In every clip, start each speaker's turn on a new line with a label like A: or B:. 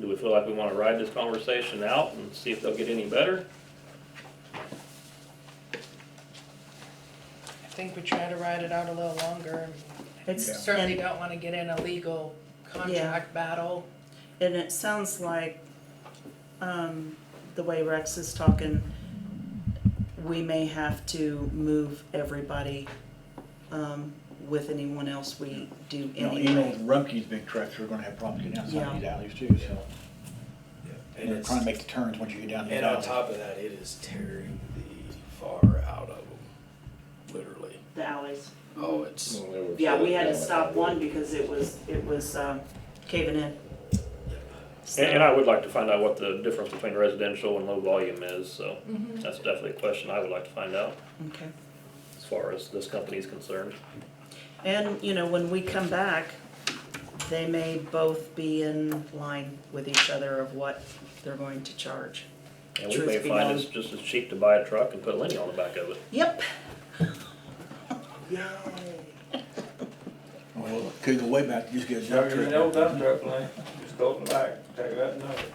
A: Do we feel like we wanna ride this conversation out and see if they'll get any better?
B: I think we try to ride it out a little longer. and
C: It's-
B: Certainly
C: and-
B: don't wanna get in a legal contract battle.
C: And it sounds like, um, the way Rex is talking, we may have to move everybody, um, with anyone else we do
D: You know, even
C: anyway.
D: with Rumpke's big trucks, we're gonna have problems getting down some
C: Yeah.
D: of these alleys too, so.
E: And
D: And they're
E: it's-
D: trying to make the turns once you get down these
E: And on
D: alleys.
E: top of that, it is tearing the far out of them, literally.
C: The alleys.
E: Oh, it's,
C: Yeah, we had to stop one because it was, it was, um, caving in.
A: And, and I would like to find out what the difference between residential and low volume is, so
C: Mm-hmm.
A: that's definitely a question I would like to find out
C: Okay.
A: as far as this company is concerned.
C: And, you know, when we come back, they may both be in line with each other of what they're going to charge.
A: And we
C: Truth
A: may
C: be
A: find
C: known.
A: it's just as cheap to buy a truck and put a Lenny on the back of it.
C: Yep.
D: Well, could go way back, you just get a dump
F: There's an old
D: truck.
F: dump truck lane, just go back, take that and over.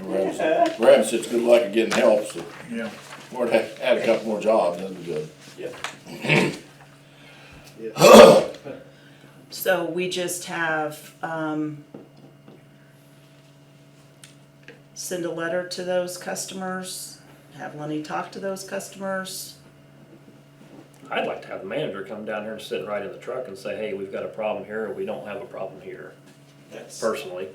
G: Graham said it's good luck at getting help, so
D: Yeah,
G: we're gonna have add a couple more jobs, that'd be good.
C: So we just have, um, send a letter to those customers, have Lenny talk to those customers.
A: I'd like to have the manager come down here and sit right in the truck and say, hey, we've got a problem here, or we don't have a problem here,
F: That's.
A: personally.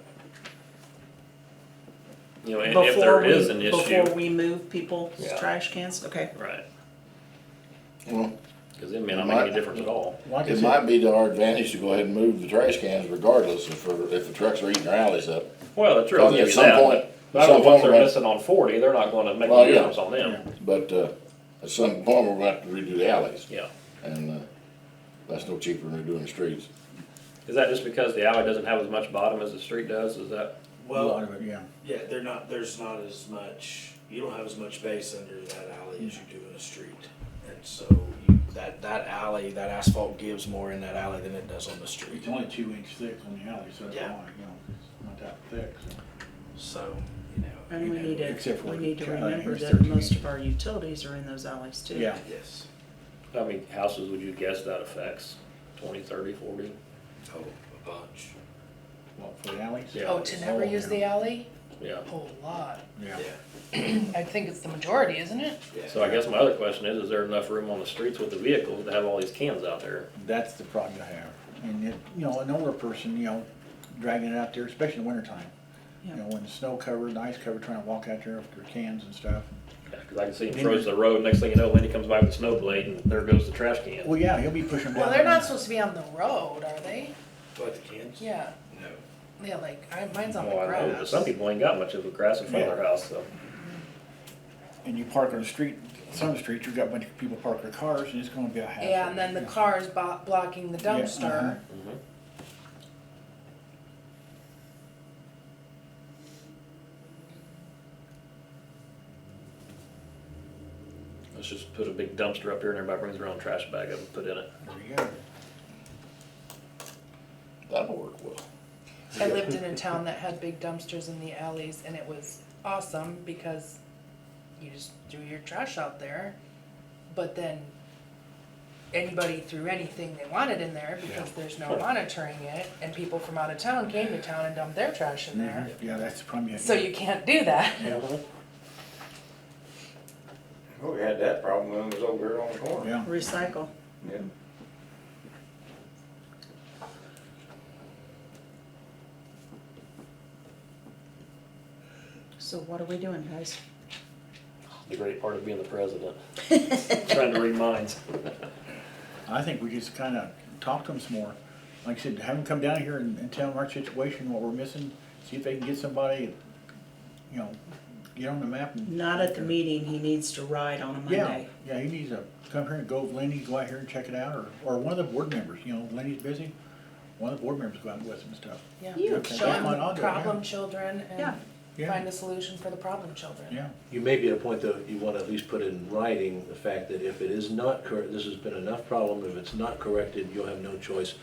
A: You know, and if there
C: before we-
A: is an
C: Before
A: issue,
C: we move people's
A: Yeah.
C: trash cans, okay.
A: right,
G: Well,
A: cause it may not make any difference at all.
D: like I
G: it
D: said,
G: might be to our advantage to go ahead and move the trash cans regardless if, we're- if the trucks are eating our alleys up.
A: Well, that's true,
G: Well,
A: I'll give
G: at
A: you
G: some
A: that,
G: point-
A: but- but
G: at some
A: once
G: point
A: they're
G: we're-
A: missing on forty, they're not gonna make
G: Well,
A: any
G: yeah.
A: difference on them,
G: But, uh, at some point, we're gonna have to redo the alleys,
A: yeah.
G: and, uh, that's no cheaper than redoing the streets.
A: Is that just because the alley doesn't have as much bottom as the street does, is that,
D: a lot
E: well,
D: of it, yeah.
E: yeah, they're not, there's not as much, you don't have as much base under that alley as you do in a street. And so you, that, that alley, that asphalt gives more in that alley than it does on the street.
D: It's only two inch thick on the alley, so it's
E: Yeah.
D: not, you know, it's not that thick, so.
E: So, you know.
C: And we need
D: Except
C: to,
D: for
C: we
D: what
C: need to
D: Charlie
C: remember
D: was
C: that
D: 13
C: most
D: inches.
C: of our utilities are in those alleys too.
D: Yeah,
E: Yes.
A: how many houses would you guess that affects? Twenty, thirty, forty?
E: Oh, a bunch.
D: well, for the alleys?
A: Yeah.
B: Oh, to never
D: Oh,
B: use the
D: yeah.
B: alley?
A: Yeah,
B: A whole lot.
D: Yeah.
B: I think it's the majority, isn't it?
E: Yeah.
A: so I guess my other question is, is there enough room on the streets with the vehicles to have all these cans out there?
D: That's the problem you have. And it, you know, an older person, you know, dragging it out there, especially in the wintertime. You
C: Yeah.
D: know, when the snow covered, and ice covered, trying to walk out there with their cans and stuff.
A: Because I can see him froze the road, next thing you know, Lenny comes by with a snow blade and there goes the trash can.
D: Well, yeah, he'll be pushing them down.
B: Well, they're not supposed to be on the road, are they?
E: But the cans?
B: Yeah,
E: No.
B: yeah, like, I, mine's on the
A: Well, I know, but
B: grass.
A: some people ain't got much of a grass in front of their house, so.
D: And you park on the street, some of the streets, you've got a bunch of people park their cars, and it's gonna be a hassle.
B: Yeah, and then the car's bo- blocking the
D: Yeah,
B: dumpster.
D: uh-huh.
A: mhm. Let's just put a big dumpster up here and everybody brings their own trash bag up and put in it.
D: There you go.
G: That'll work well.
B: I lived in a town that had big dumpsters in the alleys and it was awesome because you just threw your trash out there. But then anybody threw anything they wanted in there because there's no monitoring it and people from out of town came to town and dumped their trash in there.
D: Mhm. Yeah, that's the problem. you-
B: So you can't do that.
F: Well, Oh, we had that problem when it was over here on the corner.
D: Yeah,
C: Recycle.
F: Yeah.
C: So what are we doing, guys?
A: The great part of being the president, trying to read minds.
D: I think we just kinda talk to them some more. Like I said, have them come down here and, and tell them our situation, what we're missing, see if they can get somebody, you know, get on the map and.
C: Not at the meeting, he needs to ride on a
D: Yeah,
C: Monday.
D: yeah, he needs to come here and go, with Lenny, go out here and check it out, or, or one of the board members, you know, Lenny's busy. One of the board members go out with him and stuff.
B: Yeah.
C: You
D: Okay,
B: Show
D: that's
B: them
D: fine, I'll do it, yeah.
B: problem children
C: Yeah.
B: and find
D: Yeah,
B: a solution for the problem children.
D: yeah,
H: You may be at a point, though, you want to at least put in writing the fact that if it is not correct, this has been enough problem, if it's not corrected, you'll have no choice